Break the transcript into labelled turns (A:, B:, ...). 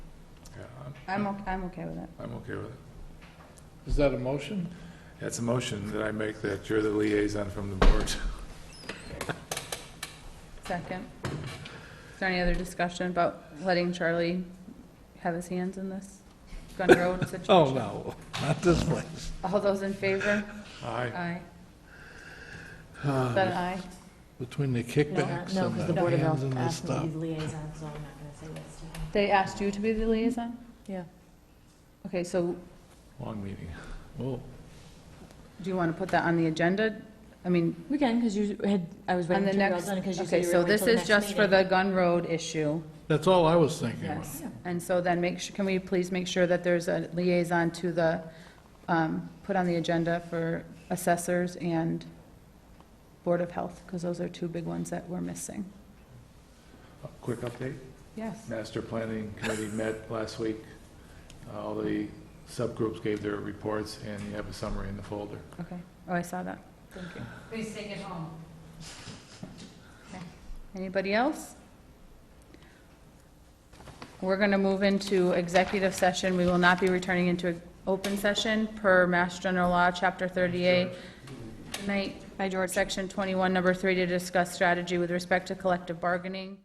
A: I'm, ok- I'm okay with it.
B: I'm okay with it.
C: Is that a motion?
B: That's a motion that I make that you're the liaison from the board.
A: Second. Is there any other discussion about letting Charlie have his hands in this Gun Road situation?
C: Oh, no, not this place.
A: All those in favor?
B: Aye.
A: Aye. Is
C: Uh,
A: that an aye?
C: Between the
D: No,
C: kickbacks
D: no,
C: and
D: because
C: the
D: the Board of
C: hands
D: Health
C: and the
D: asked me to
C: stuff.
D: be the liaison, so I'm not going to say yes to him.
A: They asked you to be the liaison?
D: Yeah.
A: Okay, so
B: Long meeting.
C: Oh,
A: do you want to put that on the agenda? I mean,
D: We can, because you had, I was
A: on
D: writing
A: the
D: through your
A: next,
D: done, because you
A: okay,
D: said you
A: so
D: were going
A: this
D: to the
A: is
D: next
A: just for the
D: meeting.
A: Gun Road issue.
C: That's all I was thinking about.
A: Yes, and so then make sure, can we please make sure that there's a liaison to the, um, put on the agenda for assessors and Board of Health, because those are two big ones that we're missing.
B: Quick update.
A: Yes.
B: Master Planning Committee met last week. Uh, All the subgroups gave their reports, and you have a summary in the folder.
A: Okay, oh, I saw that.
D: Thank you.
E: Please take it home.
A: Anybody else? We're going to move into executive session. We will not be returning into open session per Mass General Law, Chapter 38. Tonight, by George, Section 21, Number 3, to discuss strategy with respect to collective bargaining.